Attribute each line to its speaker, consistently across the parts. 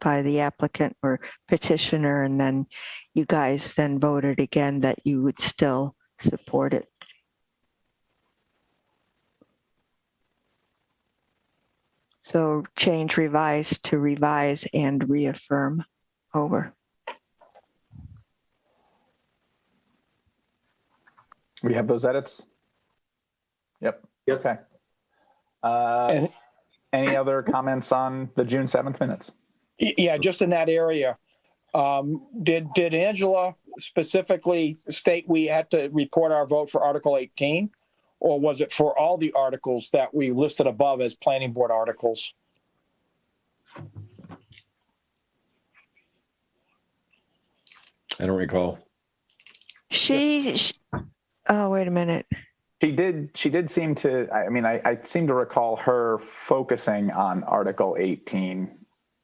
Speaker 1: by the applicant or petitioner, and then you guys then voted again that you would still support it. So change revise to revise and reaffirm over.
Speaker 2: We have those edits? Yep.
Speaker 3: Yes.
Speaker 2: Okay. Uh,
Speaker 4: And-
Speaker 2: Any other comments on the June 7th minutes?
Speaker 4: Y- Yeah, just in that area. Um, did, did Angela specifically state we had to report our vote for Article eighteen? Or was it for all the articles that we listed above as planning board articles?
Speaker 5: I don't recall.
Speaker 1: She, sh- oh, wait a minute.
Speaker 2: She did, she did seem to, I I mean, I, I seem to recall her focusing on Article 18.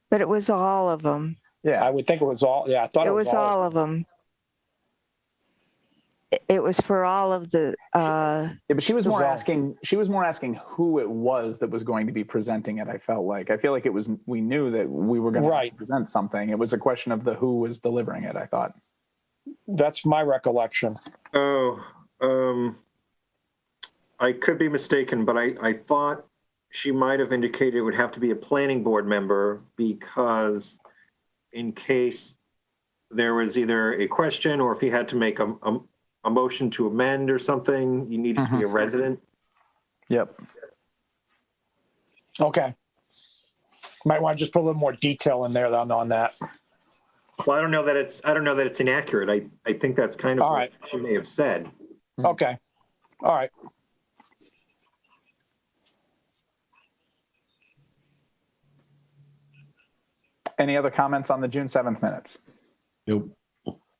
Speaker 1: But it was all of them.
Speaker 4: I
Speaker 2: Yeah,
Speaker 4: would think it was all, yeah, I thought
Speaker 1: It was all of them. It was for all of the, uh,
Speaker 2: Yeah, but she was more
Speaker 4: Resolve.
Speaker 2: asking, she was more asking who it was that was going to be presenting it, I felt like. I feel like it was, we knew that we were going to
Speaker 4: Right.
Speaker 2: present something. It was a question of the who was delivering it, I thought.
Speaker 4: That's my recollection.
Speaker 3: Oh, um, I could be mistaken, but I, I thought she might have indicated it would have to be a planning board member because in case there was either a question or if you had to make a, a, a motion to amend or something, you needed to be a resident.
Speaker 2: Yep.
Speaker 4: Okay. Might want to just put a little more detail in there on, on that.
Speaker 3: Well, I don't know that it's, I don't know that it's inaccurate. I, I think that's kind of
Speaker 4: All
Speaker 3: what she may have said.
Speaker 4: Okay. All right.
Speaker 2: Any other comments on the June 7th minutes?
Speaker 5: Nope.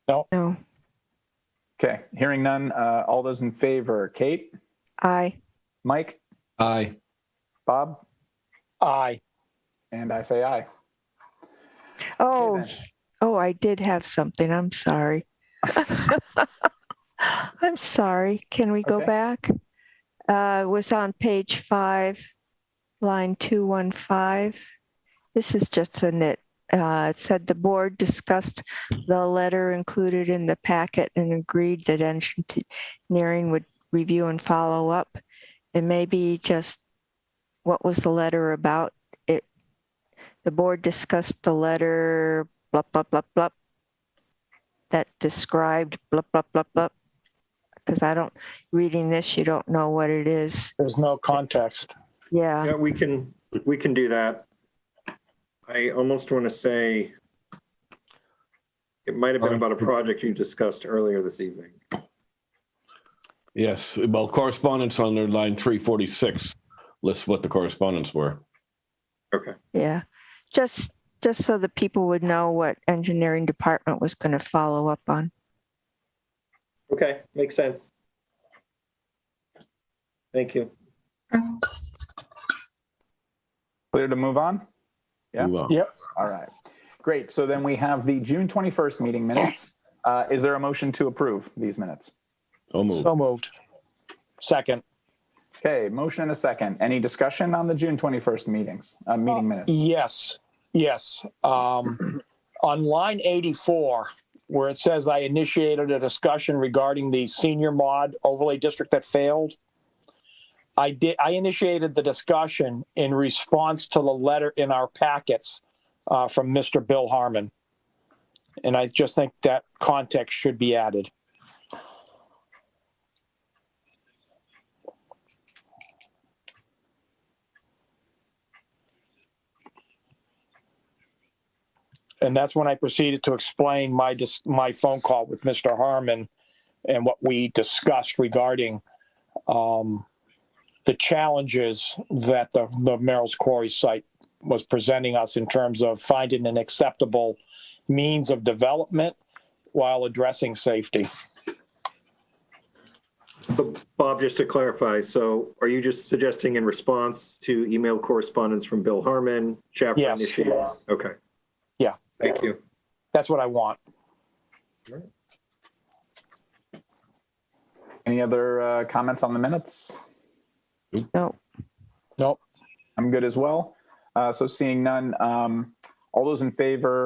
Speaker 1: no,
Speaker 2: Okay, hearing none. Uh, all those in favor, Kate,
Speaker 1: I,
Speaker 2: Mike,
Speaker 5: Aye.
Speaker 2: Bob,
Speaker 4: Aye.
Speaker 2: and I say aye.
Speaker 1: oh,
Speaker 2: Okay, then.
Speaker 1: Oh, I did have something. I'm sorry. I'm sorry. Can we go
Speaker 2: Okay.
Speaker 1: back? Uh, it was on page five, line 215. This is just a nit. Uh, it said the board discussed the letter included in the packet and agreed that engineering would review and follow up. It may be just what was the letter about? It, the board discussed the letter blup, blup, blup, blup. That described blup, blup, blup, blup. Because I don't, reading this, you don't know what it is.
Speaker 4: There's no context.
Speaker 1: Yeah,
Speaker 3: Yeah, we can, we can do that. I almost want to say it might have been about
Speaker 4: Uh,
Speaker 3: a project you discussed earlier this evening.
Speaker 5: Yes. Well, correspondence under line 346 lists what the correspondence were.
Speaker 3: Okay,
Speaker 1: yeah. Just, just so the people would know what engineering department was going to follow up on.
Speaker 3: okay, makes sense. Thank you.
Speaker 2: Clear to move on? Yeah.
Speaker 5: Move on.
Speaker 4: Yeah.
Speaker 2: All right. Great. So then we have the June 21st meeting minutes. Uh, is there a motion to approve these minutes?
Speaker 5: So moved.
Speaker 4: So moved. Second.
Speaker 2: Okay, motion and a second. Any discussion on the June 21st meetings, uh, meeting minutes?
Speaker 4: Yes, yes. Um, on line eighty-four, where it says I initiated a discussion regarding the senior mod overlay district that failed. I did, I initiated the discussion in response to the letter in our packets, uh, from Mr. Bill Harmon. And I just think that context should be added. And that's when I proceeded to explain my, dis- my phone call with Mr. Harmon and what we discussed regarding um, the challenges that the, the Merrill's Quarry site was presenting us in terms of finding an acceptable means of development while addressing safety.
Speaker 3: But Bob, just to clarify, so are you just suggesting in response to email correspondence from Bill Harmon, Chaffron
Speaker 4: Yes.
Speaker 3: initiated? Okay.
Speaker 4: Yeah.
Speaker 3: Thank you.
Speaker 4: That's what I want.
Speaker 2: Any other uh, comments on the minutes?
Speaker 1: No,
Speaker 4: Nope.
Speaker 2: I'm good as well. Uh, so seeing none, um, All those in favor